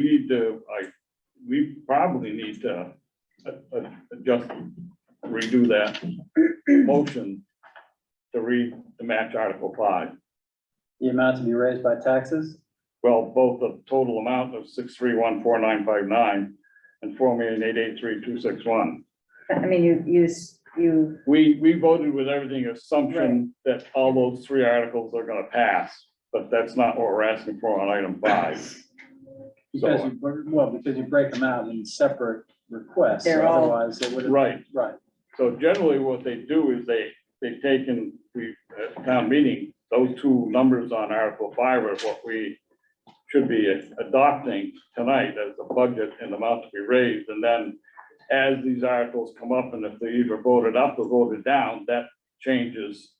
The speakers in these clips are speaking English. need to, I, we probably need to uh, uh, just redo that motion to read the match Article five. The amount to be raised by taxes? Well, both the total amount of six, three, one, four, nine, five, nine and four million, eight, eight, three, two, six, one. I mean, you, you, s- you, We, we voted with everything assumption that all those three articles are gonna pass, but that's not what we're asking for on item five. Because So- you, well, because you break them out in separate requests, They're all- otherwise it would have. Right, Right, So generally, what they do is they, they take and we, at town meeting, those two numbers on Article five are what we should be adopting tonight as a budget and amount to be raised, and then as these articles come up, and if they're either voted up or voted down, that changes,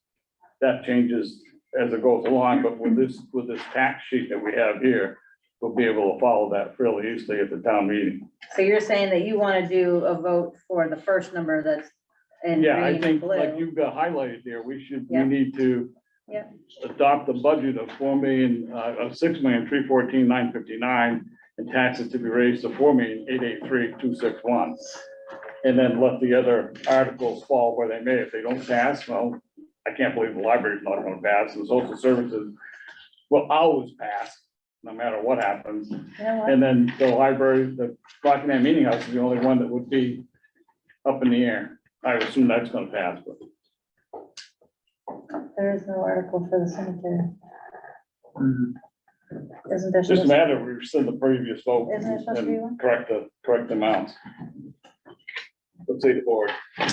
that changes as it goes along, but with this, with this tax sheet that we have here, we'll be able to follow that fairly easily at the town meeting. so you're saying that you want to do a vote for the first number that's in Yeah, I green and think, like blue. you've got highlighted there, we should, we Yeah. need to Yeah. adopt the budget of four million, uh, of six million, three fourteen, nine fifty-nine, and taxes to be raised to four million, eight eight three, two six one. And then let the other articles fall where they may. If they don't pass, well, I can't believe the library's not gonna pass, and social services will always pass, no matter what happens. You know what? And then the library, the Rockingham Meeting House is the only one that would be up in the air. I assume that's gonna pass, but. There is no article for the cemetery. Mhm. Mm-hmm. Isn't there? Just a supposed- matter, of we rescind the previous vote Isn't it supposed to be one? and correct the, correct amounts. Let's see the board. I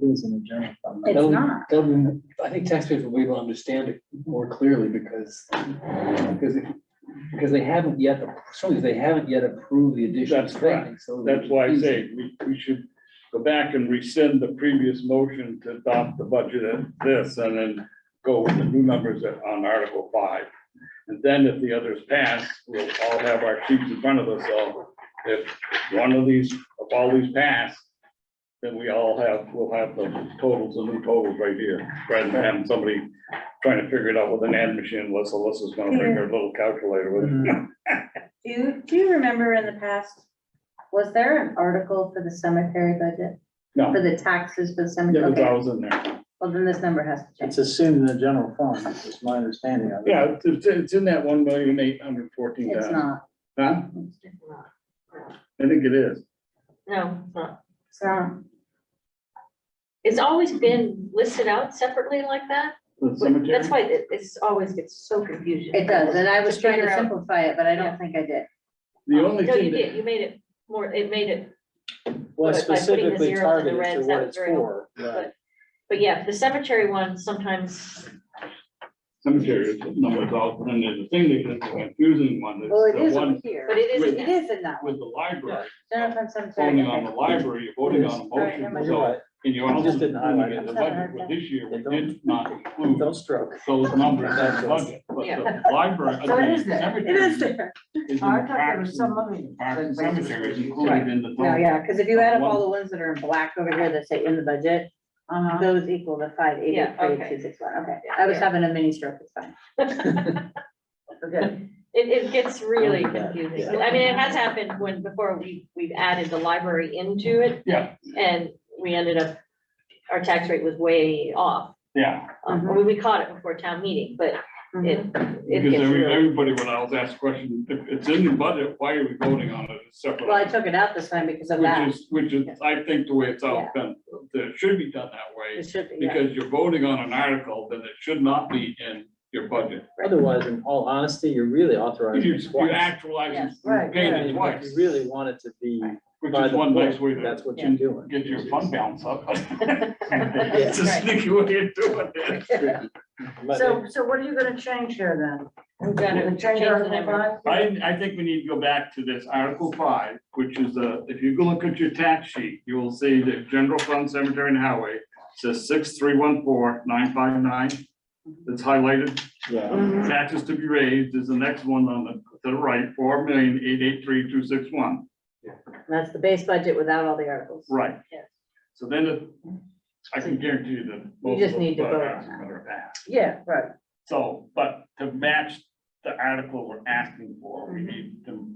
think it's in the general fund. It's That'll- not. that'll be- I think taxpayers will be able to understand it more clearly because, because, it- because they haven't yet, certainly they haven't yet approved the additional That's correct. spending, so. That's why I say we, we should go back and rescind the previous motion to adopt the budget at this and then go with the new numbers at- on Article five. And then if the others pass, we'll all have our sheets in front of us. So if one of these, if all these pass, then we all have, we'll have the totals, the new totals right here, rather than having somebody trying to figure it out with an ad machine unless Alyssa's gonna bring her little calculator with Mm-hmm. her. Do you, do you remember in the past, was there an article for the cemetery budget? No. For the taxes for the Yeah, cemetery? but I Okay, was in there. well, then this number has to change. It's assumed in the general fund, is my understanding of it. Yeah, it's- it's, it's in that one million eight hundred fourteen It's thousand. not. Huh? It's I think it is. No, it's not. not. It's always been listed out separately like that. The cemetery? That's why it, it's always gets so confusing. It does, and I was Just trying figure to out- simplify it, but I don't Yeah. think I did. The only No, you thing, did. that- You made it more, it made it, Well, But by putting the specifically zeros and the targeted to reds, what that was it's very for. Right. but, but yeah, the cemetery one sometimes, cemetery is the number of dollars, and then the thing that is the confusing one is Well, it the is over one here. but it It isn't. is in that one. with the library, General fund cemetery. voting on the library, you're voting on a Alright, motion. never You're So, right, and you're I also just didn't including highlight it. in the budget, but this year we They don't- did not include don't stroke. those numbers in the budget. But the library, I So it mean, is there. It is cemetery there. is in I thought there was parks some and money. parks and cemetery is Right. included in the No, total. yeah, because if uh, you add up all the ones that are in black over here that say in the budget, Uh-huh. those equal the five eighty Yeah, three okay. two six one. Okay, I was Yeah. having a mini stroke, it's fine. Okay. it, it gets really Yeah. confusing. I mean, it has happened when, before we, we've added the library into it. Yeah. And we ended up, our tax rate was way off. Yeah, Um, I mean, we caught it before town meeting, but it, it because gets every- really. everybody, when I was asked the question, if it's in the budget, why are we voting on it separately? Well, I took it out this time because of that. Which is, which is, I think the way it's all been, that it should be done that way, It should be, yeah. because you're voting on an article, then it should not be in your budget. Otherwise, in all honesty, you're really If authorizing you, it you twice. actualize Yes, it, right, paying Yeah, it if twice, You really want it to be which by is the one nice way book, to that's what Yeah. you're doing. get your fund balance up. It's Yes. a sneaky way of doing it. But So, so what are you gonna change here then? gonna You're gonna change Change the Article number. five? I, I think we need to go back to this Article five, which is uh if you go look at your tax sheet, you will see that general fund cemetery and highway says six, three, one, four, nine, five, nine. It's highlighted. Yeah, Mm-hmm. Mhm. Taxes to be raised is the next one on the, to the right, four million, eight, eight, three, two, six, one. That's the base budget without all the articles. Right. Yes. So then it- I can guarantee you that. You just need to vote on that. that. Yeah, right. Mm-hmm. So, but to match the article we're asking for, we need to